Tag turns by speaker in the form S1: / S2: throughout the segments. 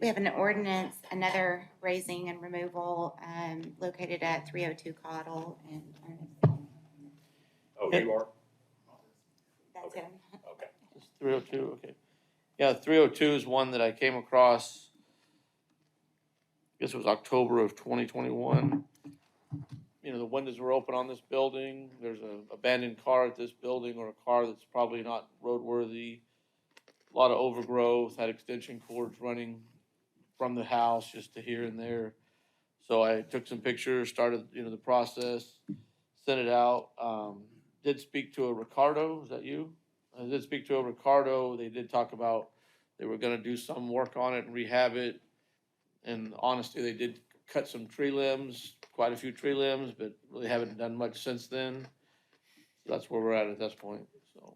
S1: We have an ordinance, another raising and removal, um, located at three oh two Cottle and Ernest.
S2: Oh, you are?
S1: That's
S2: Okay.
S1: him.
S2: Okay.
S3: It's three oh two, okay. Yeah, three oh two is one that I came across. I guess it was October of twenty twenty-one. You know, the windows were open on this building, there's a abandoned car at this building or a car that's probably not roadworthy. A Lot of overgrowth, had extension cords running from the house just to here and there. So I took some pictures, started, you know, the process, sent it out, um, did speak to a Ricardo, is that you? I did speak to a Ricardo, they did talk about, they were gonna do some work on it and rehab it. And honestly, they did cut some tree limbs, quite a few tree limbs, but really haven't done much since then. So That's where we're at at this point, so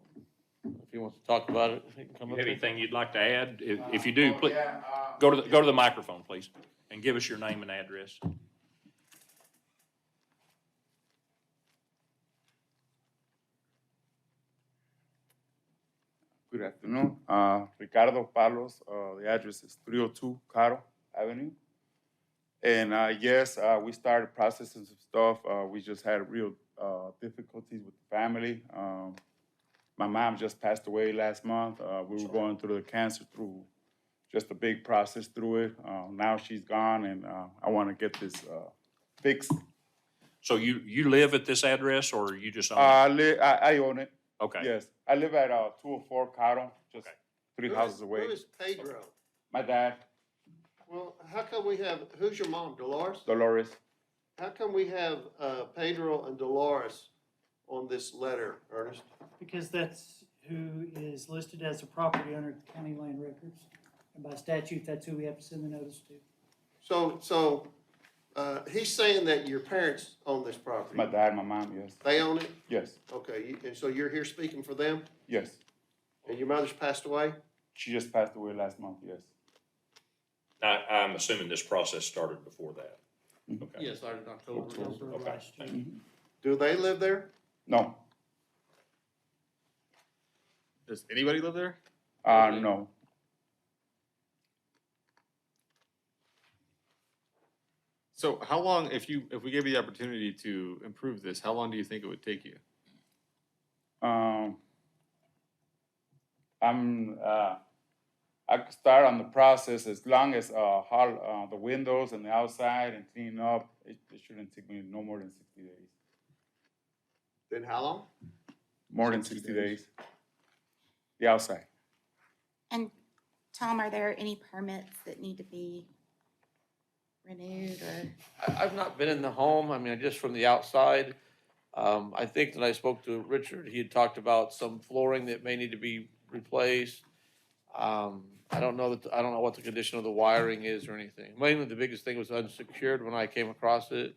S3: if he wants to talk about it, he can come
S2: You
S3: up.
S2: have
S3: here.
S2: anything you'd like to add? If, if you do,
S4: Oh,
S2: please,
S4: yeah, uh,
S2: go to, the- go to the microphone, please, and give us your name and address.
S4: Good afternoon. Uh, Ricardo Palos, uh, the address is 302 Caro Avenue. And uh, yes, uh, we started processing some stuff. Uh, we just had real uh, difficulties with the family. Um, my mom just passed away last month. Uh, we were going through the cancer through just a big process through it. Uh, now she's gone, and uh, I want to get this uh, fixed.
S2: So you, you live at this address or you just
S4: Uh,
S2: own
S4: I, li- I, I own it.
S2: it? Okay.
S4: Yes, I live at uh, 204 Caro, just
S2: Okay.
S4: three
S5: Who
S4: houses
S5: is-
S4: away.
S5: Who is Pedro?
S4: My dad,
S5: Well, how come we have, who's your mom, Dolores?
S4: Dolores.
S5: How come we have, uh, Pedro and Dolores on this letter, Ernest?
S6: Because that's who is listed as a property owner of the county land records. And by statute, that's who we have to send the notice to.
S5: So, so, uh, he's saying that your parents own this property?
S4: My dad, my mom, yes.
S5: They own it?
S4: Yes,
S5: Okay, you- and so you're here speaking for them,
S4: yes.
S5: and your mother's passed away?
S4: She just passed away last month, yes.
S2: I, I'm assuming this process started before that. Okay.
S3: Yeah, started in October.
S6: October of
S2: Okay,
S6: last year.
S4: Mm-hmm.
S5: Do they live there?
S4: No,
S7: Does anybody live there?
S4: uh,
S3: Okay.
S4: no.
S7: So how long, if you, if we gave you the opportunity to improve this, how long do you think it would take you?
S4: Um, I'm, uh, I could start on the process as long as, uh, hall, uh, the windows and the outside and cleaning up. It, it shouldn't take me no more than sixty days.
S5: Then how long?
S4: More than
S7: 60
S4: sixty
S7: days.
S4: days. The outside.
S1: And Tom, are there any permits that need to be renewed or?
S3: I, I've not been in the home, I mean, just from the outside. Um, I think that I spoke to Richard, he had talked about some flooring that may need to be replaced. Um, I don't know that, I don't know what the condition of the wiring is or anything. Mainly, the biggest thing was unsecured when I came across it.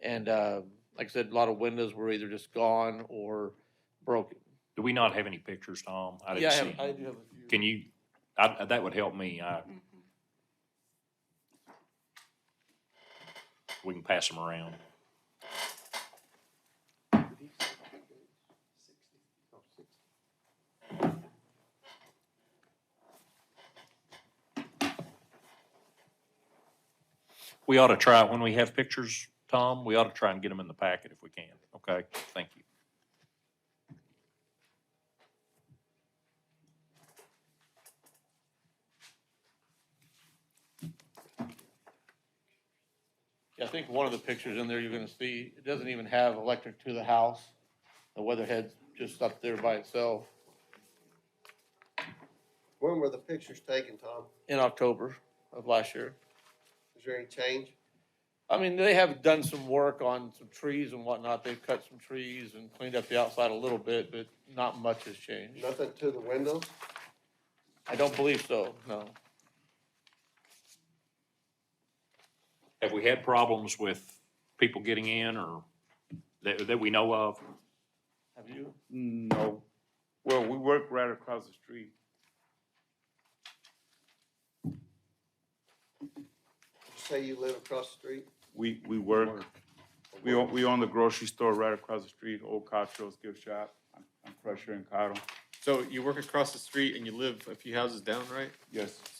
S3: And, uh, like I said, a lot of windows were either just gone or broken.
S2: Do we not have any pictures, Tom? I
S3: Yeah,
S2: didn't
S3: I
S2: see.
S3: have- I
S2: them.
S3: do have a few.
S2: Can you, I, that would help me. I,
S1: Mhm.
S2: we can pass them around. We ought to try, when we have pictures, Tom, we ought to try and get them in the packet if we can, okay? Thank you.
S3: Yeah, I think one of the pictures in there you're gonna see, it doesn't even have electric to the house. The weatherhead's just up there by itself
S5: When were the pictures taken, Tom?
S3: in October of last year.
S5: Is there any change?
S3: I mean, they have done some work on some trees and whatnot. They've cut some trees and cleaned up the outside a little bit, but not much has changed.
S5: Nothing to the windows?
S3: I don't believe so, no.
S2: Have we had problems with people getting in or that, that we know of?
S3: Have you?
S4: No. Well, we work right across the street.
S5: Did you Say you live across the street?
S4: We, we work. We own, we own the grocery store right across the street, Old Cotrell's Gift Shop. I'm- I'm Crusher and Cottle.
S7: So you work across the street and you live a few houses down, right?
S4: Yes.